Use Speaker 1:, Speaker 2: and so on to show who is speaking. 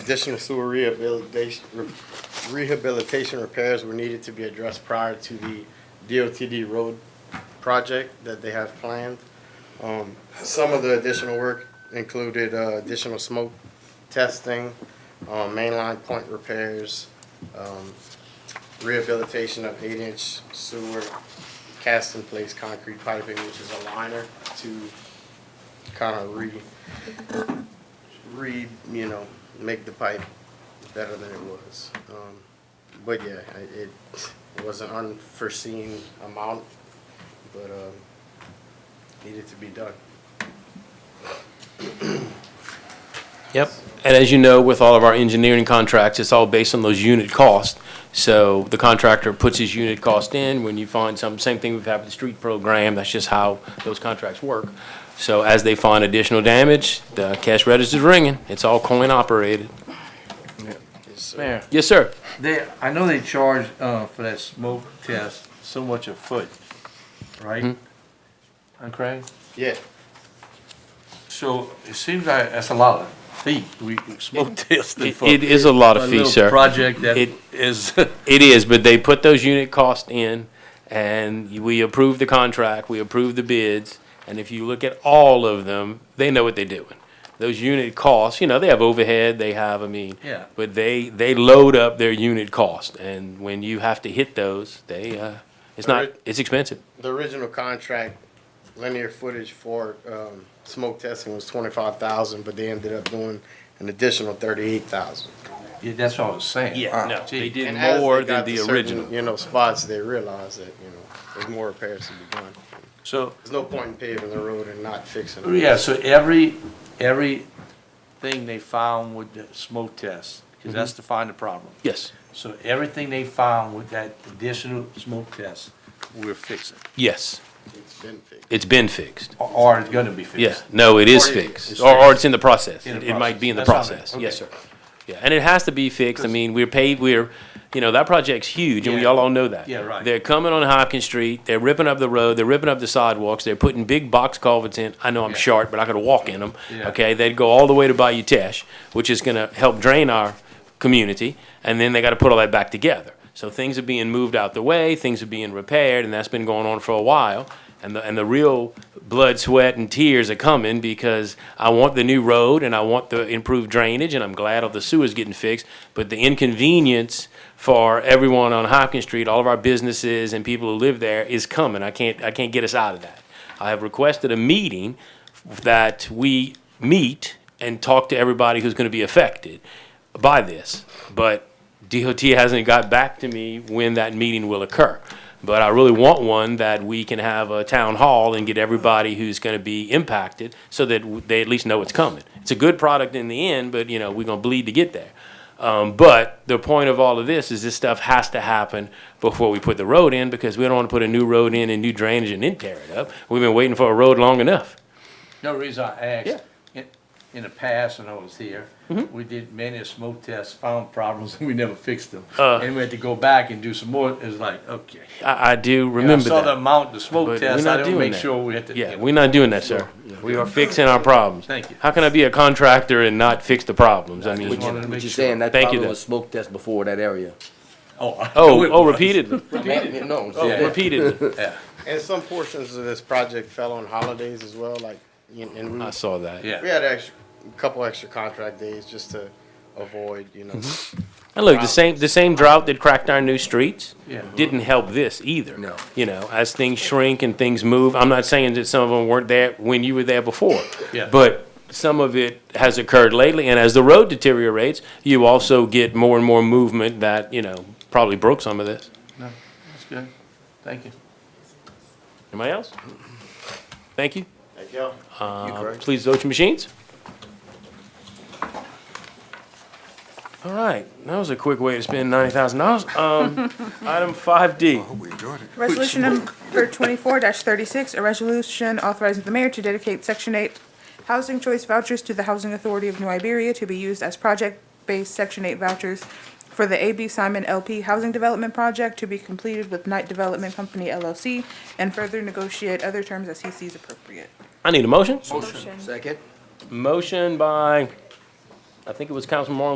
Speaker 1: Additional sewer rehabilitation, re- rehabilitation repairs were needed to be addressed prior to the DOTD road project that they have planned. Um, some of the additional work included, uh, additional smoke testing, um, mainline point repairs, um, rehabilitation of eight-inch sewer, cast-in-place concrete piping, which is a liner to kind of re, re, you know, make the pipe better than it was. Um, But yeah, I- it was an unforeseen amount, but um, needed to be done.
Speaker 2: Yep. And as you know, with all of our engineering contracts, it's all based on those unit costs. So the contractor puts his unit cost in. When you find some, same thing we've had with the street program, that's just how those contracts work. So as they find additional damage, the cash register's ringing. It's all coin operated.
Speaker 1: Yes, sir.
Speaker 3: Mayor,
Speaker 2: Yes, sir.
Speaker 3: they, I know they charge, uh, for that smoke test so much a foot, right?
Speaker 2: Mm-hmm.
Speaker 3: Okay,
Speaker 1: Yeah,
Speaker 3: so it seems like that's a lot of feet, we, smoke testing
Speaker 2: It
Speaker 3: for.
Speaker 2: it is a lot
Speaker 3: a
Speaker 2: of fees,
Speaker 3: little
Speaker 2: sir.
Speaker 3: Project that
Speaker 2: It-
Speaker 3: is,
Speaker 2: It is, but they put those unit costs in, and we approve the contract, we approve the bids, and if you look at all of them, they know what they're doing. Those unit costs, you know, they have overhead, they have, I mean,
Speaker 3: Yeah.
Speaker 2: but they, they load up their unit cost, and when you have to hit those, they, uh, it's not,
Speaker 1: Alright.
Speaker 2: it's expensive.
Speaker 1: the original contract linear footage for um, smoke testing was twenty-five thousand, but they ended up doing an additional thirty-eight thousand.
Speaker 3: yeah, that's what I was saying. Ah,
Speaker 2: no, they did
Speaker 1: And as they
Speaker 2: more
Speaker 1: got
Speaker 2: than the
Speaker 1: to certain,
Speaker 2: original.
Speaker 1: You know, spots, they realized that, you know, there's more repairs to be done.
Speaker 3: So,
Speaker 1: There's no point in paving the road and not fixing it.
Speaker 3: yeah, so every, every thing they found with the smoke test, cause that's
Speaker 2: Mm-hmm.
Speaker 3: to find the problem.
Speaker 2: Yes,
Speaker 3: So everything they found with that additional smoke test, we're fixing,
Speaker 2: yes,
Speaker 1: It's been fixed.
Speaker 2: it's been fixed.
Speaker 3: or, or it's gonna be fixed.
Speaker 2: Yeah, no, it is
Speaker 1: Or it-
Speaker 2: fixed,
Speaker 1: it's
Speaker 2: or, or it's in the process,
Speaker 3: In
Speaker 2: it
Speaker 3: the
Speaker 2: it might be in the
Speaker 3: process. That's
Speaker 2: process,
Speaker 3: all right.
Speaker 2: yes, sir. Yeah, and it has to be fixed, I mean, we're paid, we're, you know, that project's huge, and we
Speaker 3: Yeah.
Speaker 2: all all know that.
Speaker 3: Yeah, right.
Speaker 2: They're coming on Hopkins Street, they're ripping up the road, they're ripping up the sidewalks, they're putting big box culverts in, I know I'm
Speaker 3: Yeah.
Speaker 2: short, but I could walk in them,
Speaker 3: Yeah.
Speaker 2: okay? They'd go all the way to Bayou Teche, which is gonna help drain our community, and then they gotta put all that back together. So things are being moved out the way, things are being repaired, and that's been going on for a while. And the, and the real blood, sweat, and tears are coming because I want the new road and I want the improved drainage, and I'm glad all the sewer's getting fixed. But the inconvenience for everyone on Hopkins Street, all of our businesses and people who live there is coming. I can't, I can't get us out of that. I have requested a meeting that we meet and talk to everybody who's gonna be affected by this. But DOT hasn't got back to me when that meeting will occur. But I really want one that we can have a town hall and get everybody who's gonna be impacted so that w- they at least know it's coming. It's a good product in the end, but you know, we're gonna bleed to get there. Um, but the point of all of this is this stuff has to happen before we put the road in because we don't want to put a new road in and new drainage and then tear it up. We've been waiting for a road long enough.
Speaker 3: No reason I
Speaker 2: Yeah. Mm-hmm.
Speaker 3: asked, in, in the past when I was here, we did many smoke tests, found problems, and we never fixed them.
Speaker 2: Uh.
Speaker 3: And we had to go back and do some more, it's like, okay.
Speaker 2: I, I do
Speaker 3: And I
Speaker 2: remember
Speaker 3: saw the
Speaker 2: that.
Speaker 3: amount, the
Speaker 2: But
Speaker 3: smoke
Speaker 2: we're
Speaker 3: test,
Speaker 2: not
Speaker 3: I didn't
Speaker 2: doing
Speaker 3: make
Speaker 2: that.
Speaker 3: sure we had to.
Speaker 2: Yeah, we're not doing that, sir. We are fixing our problems.
Speaker 3: Thank you.
Speaker 2: How can I be a contractor and not fix the problems? I mean,
Speaker 3: Just wanted to
Speaker 4: What
Speaker 3: make
Speaker 4: you're
Speaker 3: sure.
Speaker 4: saying, that
Speaker 2: Thank you,
Speaker 4: probably
Speaker 2: Doug.
Speaker 4: was smoke test before that area.
Speaker 3: Oh, I know
Speaker 2: oh,
Speaker 3: it
Speaker 2: oh,
Speaker 3: was.
Speaker 2: repeatedly,
Speaker 4: No,
Speaker 3: Oh,
Speaker 4: yeah.
Speaker 2: repeatedly.
Speaker 3: Yeah,
Speaker 1: And some portions of this project fell on holidays as well, like, in- and we,
Speaker 2: I saw that.
Speaker 1: we
Speaker 3: yeah.
Speaker 1: had extra, a couple extra contract days just to avoid, you know.
Speaker 2: And look, the same, the same drought that cracked our new streets
Speaker 3: Yeah. Uh-huh.
Speaker 2: didn't help this either.
Speaker 4: No.
Speaker 2: You know, as things shrink and things move, I'm not saying that some of them weren't there when you were there before.
Speaker 3: Yeah.
Speaker 2: But some of it has occurred lately, and as the road deteriorates, you also get more and more movement that, you know, probably broke some of this.
Speaker 3: No, That's good, thank you.
Speaker 2: Anybody else? Thank you.
Speaker 1: Like, yo,
Speaker 2: Uh, Please vote your machines. All right, that was a quick way to spend ninety thousand dollars. Um, item five D.
Speaker 5: Resolution number twenty-four thirty-six, a resolution authorizing the mayor to dedicate section eight housing choice vouchers to the Housing Authority of New Iberia to be used as project-based section eight vouchers for the A.B. Simon LP Housing Development Project to be completed with Knight Development Company LLC and further negotiate other terms as he sees appropriate.
Speaker 2: I need a motion.
Speaker 4: Second?
Speaker 2: Motion by, I think it was Councilman Marlon